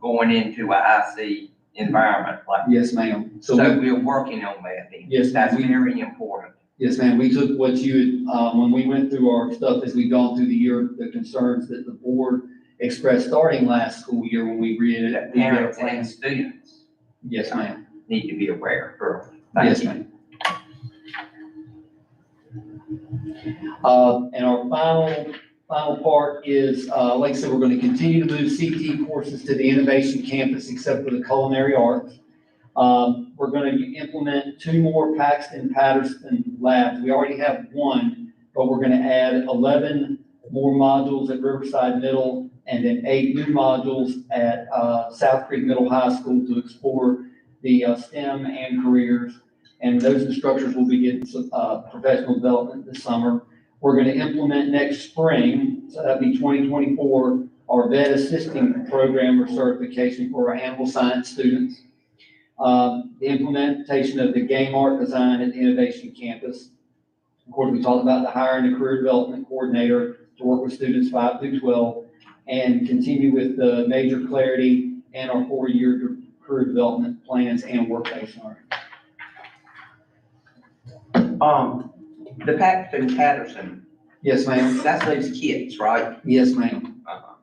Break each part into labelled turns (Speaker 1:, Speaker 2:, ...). Speaker 1: going into a IC environment, like,
Speaker 2: Yes, ma'am.
Speaker 1: so
Speaker 2: So, we-
Speaker 1: we're working on that then.
Speaker 2: Yes,
Speaker 1: That's
Speaker 2: we-
Speaker 1: very important.
Speaker 2: yes, ma'am, we took what you, had, um, when we went through our stuff as we gone through the year, the concerns that the board expressed starting last school year when we read
Speaker 1: That
Speaker 2: it.
Speaker 1: parents and students
Speaker 2: Yes, ma'am.
Speaker 1: need to be aware, girl. Thank
Speaker 2: Yes,
Speaker 1: you.
Speaker 2: ma'am. Uh, and our final, final part is, uh, like I said, we're gonna continue to move CT courses to the Innovation Campus except for the Culinary Arts. Um, we're gonna implement two more Paxton Patterson labs. We already have one, but we're gonna add eleven more modules at Riverside Middle and then eight new modules at, uh, South Creek Middle High School to explore the uh, STEM and careers. And those instructors will be getting some, uh, professional development this summer. We're gonna implement next spring, so that'd be twenty twenty-four, our vet assisting program or certification for our animal science students. Um, the implementation of the game art design at the Innovation Campus. Of course, we talked about the hiring a career development coordinator to work with students five through twelve and continue with the major clarity and our four-year career development plans and workplace learning.
Speaker 1: Um, the Paxton Patterson,
Speaker 2: Yes, ma'am.
Speaker 1: that's those kids, right?
Speaker 2: Yes, ma'am.
Speaker 1: Uh-huh.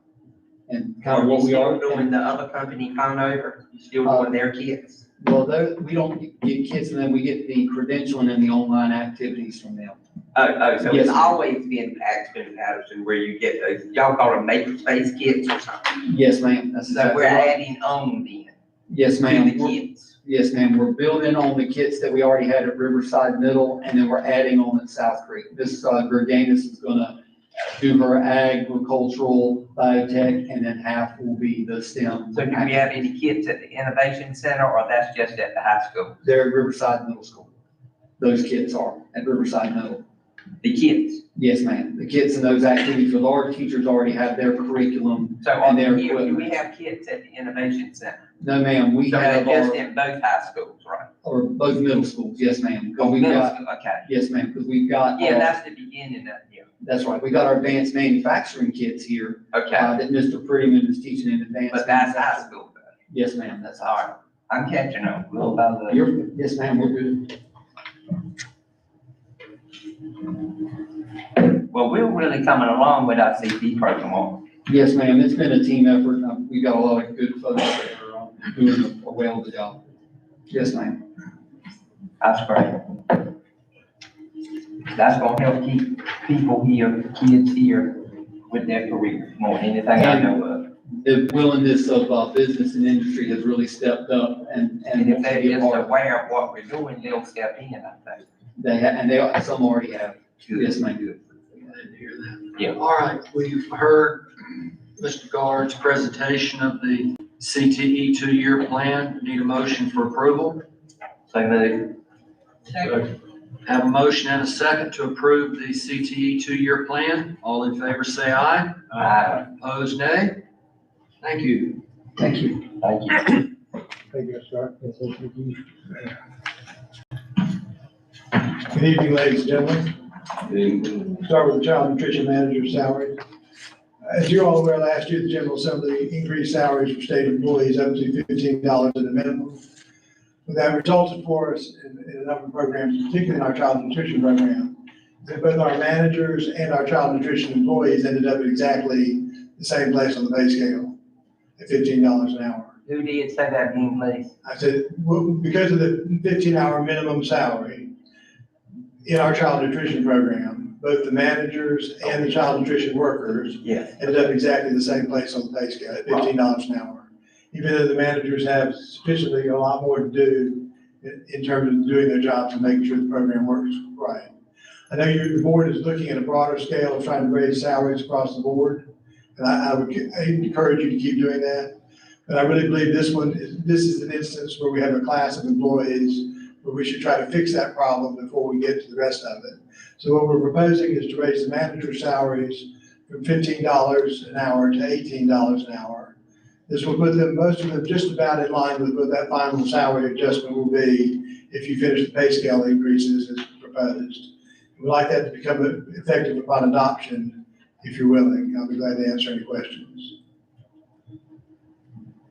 Speaker 2: And kind of what
Speaker 1: you
Speaker 2: we are. Uh,
Speaker 1: still Doing the other company Conover, you still doing their kids?
Speaker 2: Well, though, we don't get kids and then we get the credentialing and the online activities from them.
Speaker 1: Oh, oh, so it's
Speaker 2: Yes, ma'am.
Speaker 1: always been Paxton Patterson where you get those, y'all call them makerspace kids or something.
Speaker 2: Yes, ma'am. That's
Speaker 1: So
Speaker 2: exactly
Speaker 1: we're
Speaker 2: right.
Speaker 1: adding on then
Speaker 2: Yes,
Speaker 1: to
Speaker 2: ma'am.
Speaker 1: the
Speaker 2: We're-
Speaker 1: kids.
Speaker 2: Yes, ma'am. We're building on the kits that we already had at Riverside Middle and then we're adding on at South Creek. This, uh, Verdanis is gonna do her agricultural, biotech, and then half will be the STEM.
Speaker 1: So do we have any kids at the Innovation Center or that's just at the high school?
Speaker 2: They're at Riverside Middle School. Those kids are at Riverside Middle.
Speaker 1: The kids?
Speaker 2: Yes, ma'am. The kids in those activities, with our teachers already have their curriculum.
Speaker 1: So are
Speaker 2: And their
Speaker 1: there, do we
Speaker 2: equipment.
Speaker 1: have kids at the Innovation Center?
Speaker 2: No, ma'am, we
Speaker 1: So they're
Speaker 2: have
Speaker 1: just
Speaker 2: our,
Speaker 1: in both high schools, right?
Speaker 2: or both middle schools, yes, ma'am. Because we've
Speaker 1: Middle
Speaker 2: got,
Speaker 1: school, Okay.
Speaker 2: yes, ma'am, because we've got,
Speaker 1: Yeah,
Speaker 2: our-
Speaker 1: that's the beginning of, yeah.
Speaker 2: that's right, we got our advanced manufacturing kids here
Speaker 1: Okay,
Speaker 2: uh, that Mr. Prettyman is teaching in advanced.
Speaker 1: but that's high
Speaker 2: manufacturing.
Speaker 1: school. though.
Speaker 2: Yes, ma'am, that's
Speaker 1: All
Speaker 2: high.
Speaker 1: right, I'm catching on little by little.
Speaker 2: You're, yes, ma'am, we're good.
Speaker 1: Well, we're really coming along with our CP program. aren't we?
Speaker 2: Yes, ma'am, it's been a team effort. and, um, We've got a lot of good folks that are um, doing a well job. Yes, ma'am.
Speaker 1: That's great. That's gonna help keep people here, kids here with their careers more than anything I know of.
Speaker 2: The willingness of uh, business and industry has really stepped up and,
Speaker 1: And
Speaker 2: and.
Speaker 1: if
Speaker 2: wants to
Speaker 1: they're
Speaker 2: be a
Speaker 1: just
Speaker 2: part of it.
Speaker 1: aware of what we're doing, they'll step in, I think.
Speaker 2: They, ha- and they, are- some already have.
Speaker 1: too.
Speaker 2: Yes, ma'am.
Speaker 3: I didn't hear that.
Speaker 1: Yeah.
Speaker 3: All right, we've heard Mr. Guard's presentation of the CTE two-year plan. Need a motion for approval.
Speaker 1: So moved.
Speaker 3: Have a motion and a second to approve the CTE two-year plan. All in favor, say aye.
Speaker 1: Aye.
Speaker 3: Opposed, nay. Thank you.
Speaker 2: Thank you.
Speaker 1: Thank you.
Speaker 4: Thank you, sir. Good evening, ladies and gentlemen. Start with the child nutrition manager's salary. As you're all aware, last year, the General Assembly increased salaries for state employees up to fifteen dollars at a minimum. What That resulted for us in in a number of programs, particularly in our child nutrition program, that both our managers and our child nutrition employees ended up at exactly the same place on the pay scale, at fifteen dollars an hour.
Speaker 1: Who did say that in place?
Speaker 4: I said, well, because of the fifteen hour minimum salary in our child nutrition program, both the managers and the child nutrition workers
Speaker 1: Yes.
Speaker 4: ended up exactly the same place on the pay scale at fifteen dollars an hour. Even though the managers have sufficiently a lot more to do in, in terms of doing their jobs and making sure the program works right. I know your, the board is looking at a broader scale of trying to raise salaries across the board, and I, I would ca- I encourage you to keep doing that. But I really believe this one, is this is an instance where we have a class of employees where we should try to fix that problem before we get to the rest of it. So what we're proposing is to raise the manager's salaries from fifteen dollars an hour to eighteen dollars an hour. This will put them, most of them just about in line with what that final salary adjustment will be if you finish the pay scale increases as proposed. We'd like that to become effective upon adoption, if you're willing. I'll be glad to answer any questions.